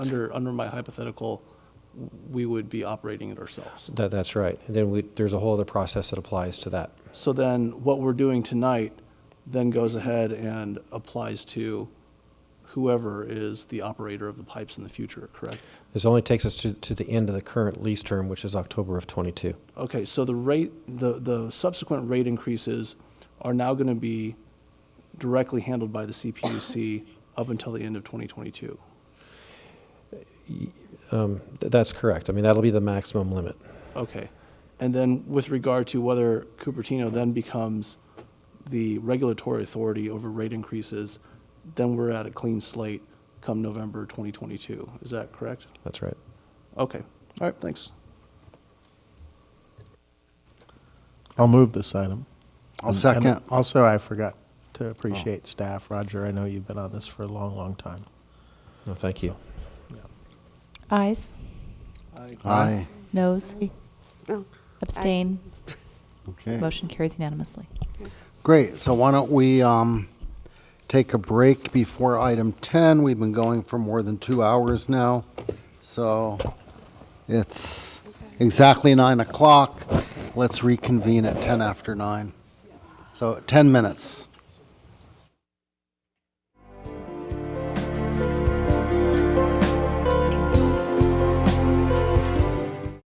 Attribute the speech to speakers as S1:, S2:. S1: under, under my hypothetical, we would be operating it ourselves.
S2: That, that's right. And then we, there's a whole other process that applies to that.
S1: So then what we're doing tonight then goes ahead and applies to whoever is the operator of the pipes in the future, correct?
S2: This only takes us to, to the end of the current lease term, which is October of '22.
S1: Okay, so the rate, the, the subsequent rate increases are now going to be directly handled by the CPUC up until the end of 2022.
S2: Th- That's correct. I mean, that'll be the maximum limit.
S1: Okay. And then with regard to whether Cupertino then becomes the regulatory authority over rate increases, then we're at a clean slate come November 2022. Is that correct?
S2: That's right.
S1: Okay. All right, thanks.
S3: I'll move this item.
S4: I'll
S3: And-
S4: second.
S3: and Also, I forgot to appreciate staff. Roger, I know you've been on this for a long, long time.
S2: No, thank you.
S5: Ayes,
S4: Aye.
S5: noes,
S6: Oh,
S5: abstain.
S4: Okay.
S5: Motion carries unanimously.
S4: Great. So why don't we um, take a break before item 10? We've been going for more than two hours now. So it's exactly 9 o'clock. Let's reconvene at 10 after 9. So 10 minutes.